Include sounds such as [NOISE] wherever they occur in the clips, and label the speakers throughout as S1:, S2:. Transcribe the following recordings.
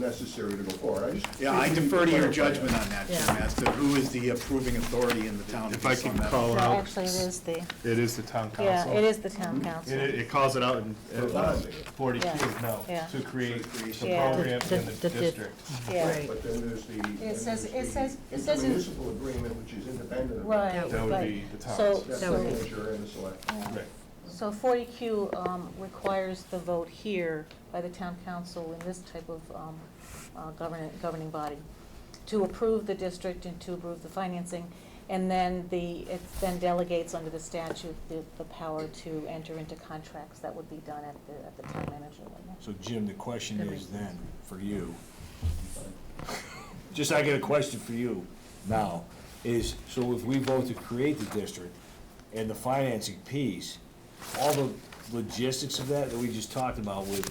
S1: necessary to go forward. I just-
S2: Yeah, I defer to your judgment on that, Jim,
S3: Yeah.
S2: as to who is the approving authority in the town.
S4: If I
S2: based on
S4: can
S2: that.
S4: call
S3: No,
S4: out.
S3: actually, it is the,
S4: It is the town
S3: yeah,
S4: council.
S3: it is the town council.
S4: It, it calls it out in uh,
S1: For bonding.
S4: forty Q,
S3: Yeah,
S4: no,
S3: yeah.
S4: to create
S2: For the
S4: the
S2: creation.
S3: Yeah.
S4: program
S3: The-
S4: in
S3: the-
S4: the
S3: the-
S4: district.
S3: Yeah,
S1: But then there's the. then there's
S5: says- it
S1: the
S5: says- it says in-
S1: Municipal agreement, which is independent of.
S3: right,
S5: That
S4: That would
S3: right.
S4: be the town.
S3: So-
S1: That's
S3: so-
S1: the manager and the select.
S4: Right.
S3: So 40Q um, requires the vote here by the town council in this type of um, uh, governing, governing body to approve the district and to approve the financing, and then the, it then delegates under the statute the, the power to enter into contracts that would be done at the, at the town manager level.
S6: So Jim, the question
S3: That
S6: is
S3: makes
S6: then, for you, just I get a question for you now, is, so if we vote to create the district and the financing piece, all the logistics of that that we just talked about with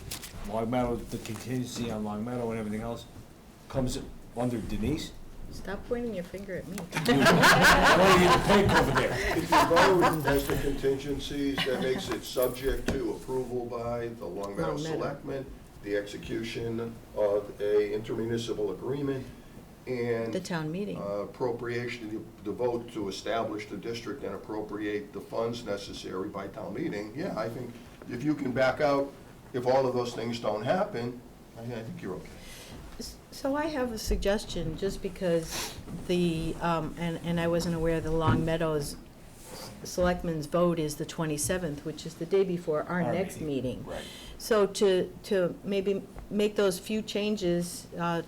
S6: Long Meadow, the contingency on Long Meadow and everything else, comes under Denise?
S7: Stop pointing your finger [LAUGHS] at me.
S6: Why do you get the pink over there?
S1: If you vote as to contingencies, that makes it subject to approval by the Long Meadow
S7: Long Meadow.
S1: Selectmen, the execution of a intermunicipal agreement, and.
S7: The town meeting.
S1: uh, Appropriation, the vote to establish the district and appropriate the funds necessary by town meeting. Yeah, I think if you can back out, if all of those things don't happen, I I think you're okay.
S7: S- So I have a suggestion, just because the, um, and, and I wasn't aware the Long Meadows Selectmen's vote is the 27th, which is the day before our
S6: Our
S7: next
S6: meeting,
S7: meeting.
S6: right.
S7: So to, to maybe make those few changes uh,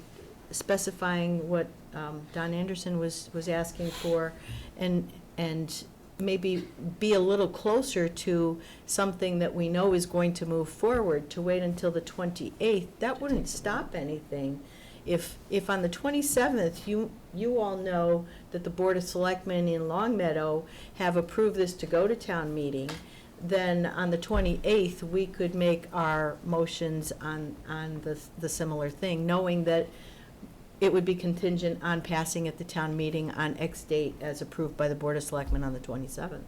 S7: specifying what um, Don Anderson was, was asking for, and, and maybe be a little closer to something that we know is going to move forward, to wait until the 28th, that wouldn't stop anything. If, if on the 27th, you, you all know that the Board of Selectmen in Long Meadow have approved this to go to town meeting, then on the 28th, we could make our motions on, on the, the similar thing, knowing that it would be contingent on passing at the town meeting on X date as approved by the Board of Selectmen on the 27th.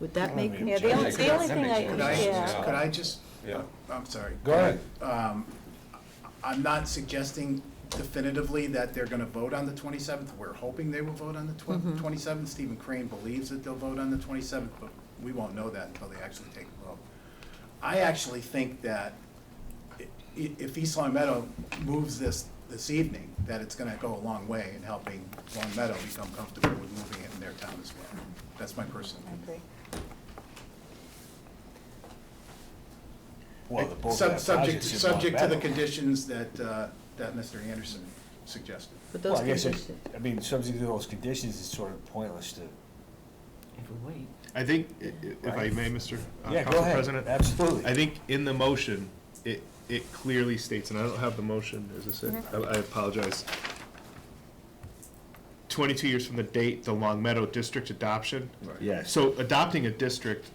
S7: Would that make,
S3: Yeah, the only, the only thing I,
S2: Could I,
S3: yeah.
S2: could I just,
S4: Yeah.
S2: I'm sorry.
S6: Go ahead.
S2: I'm not suggesting definitively that they're gonna vote on the twenty-seventh. We're hoping they will vote on the twenty-seventh. Stephen Crane believes that they'll vote on the twenty-seventh, but we won't know that until they actually take a vote. I actually think that i- i- if East Long Meadow moves this, this evening, that it's gonna go a long way in helping Long Meadow become comfortable with moving it in their town as well. That's my personal
S3: I
S2: opinion.
S3: agree.
S6: Well, the both
S2: Sub-
S6: have
S2: Subject,
S6: positives on
S2: subject to the
S6: Meadow.
S2: conditions that, uh, that Mr. Anderson suggested.
S7: with
S6: Well,
S7: those
S6: I guess, it-
S7: conditions?
S6: I mean, subject to those conditions, it's sort of pointless to.
S4: I think, i- i- if I
S6: Right.
S4: may, Mr. uh,
S6: Yeah, go
S4: Council
S6: ahead.
S4: President.
S6: Absolutely.
S4: I think in the motion, it, it clearly states, and I don't have the motion, is this it?
S3: Mm-hmm.
S4: I I apologize. Twenty-two years from the date, the Long Meadow District adoption.
S6: Yes.
S4: So adopting a district,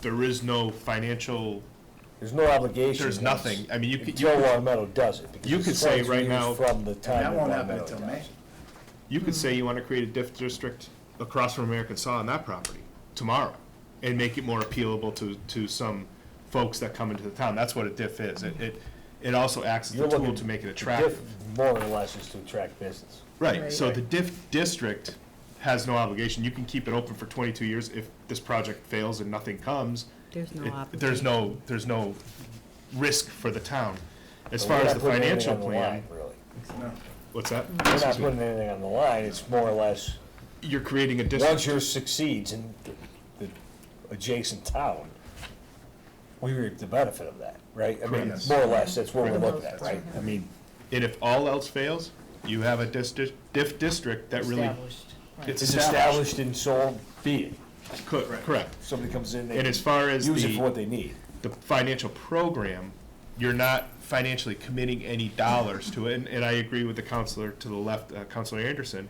S4: there is no financial,
S6: There's no obligation.
S4: There's nothing. I mean, you could-
S6: Until Long Meadow does it. because
S4: You
S6: it's
S4: could say
S6: 22
S4: right
S6: years
S4: now-
S6: From the time.
S2: That
S6: that
S2: won't
S6: Long
S2: happen
S6: Meadow
S2: until May.
S6: does it.
S4: you
S7: Hmm.
S4: could say you want to create a diff district across from American Saw on that property tomorrow and make it more appealable to, to some folks that come into the town. That's what a diff is. It, it, it also acts as
S6: You're
S4: a tool
S6: looking-
S4: to make it
S6: the diff
S4: attractive.
S6: More or less is to attract business.
S4: Right,
S7: Right.
S4: so the diff district has no obligation, you can keep it open for twenty-two years if this project fails and nothing comes.
S7: There's no
S4: it-
S7: obligation.
S4: There's no, there's no risk for the town. As
S6: But
S4: far
S6: we're
S4: as
S6: not
S4: the
S6: putting anything
S4: financial
S6: on the
S4: plan,
S6: line, Really.
S4: what's that?
S6: We're not putting anything on the line, it's more or less,
S4: You're creating a
S6: once
S4: district,
S6: yours succeeds in the the adjacent town, we reap the benefit of that, right? I mean,
S4: Correct.
S6: more or less, that's what we're
S4: Correct.
S6: looking at, right? I mean,
S4: and if all else fails, you have a district, diff district that really. It's
S6: it's established and so be it.
S4: Co- Correct,
S6: Somebody comes in, they
S4: and as far as the.
S6: use it for what they need.
S4: the financial program, you're not financially committing any dollars to it. And, and I agree with the counselor to the left, uh, Counselor Anderson,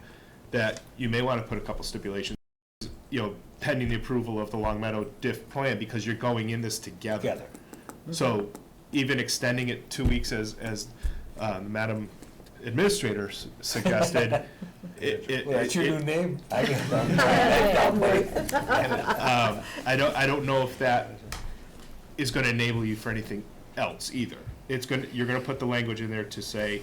S4: that you may want to put a couple stipulations, you know, pending the approval of the Long Meadow diff plan, because you're going in this together.
S6: Together.
S4: So even extending it two weeks as, as uh, Madam Administrator s-
S6: [LAUGHS]
S4: suggested, it, it.
S6: Well, That's your new
S4: it-
S6: name? I can-
S4: um, I don't, I don't know if that is gonna enable you for anything else either. It's gonna, you're gonna put the language in there to say,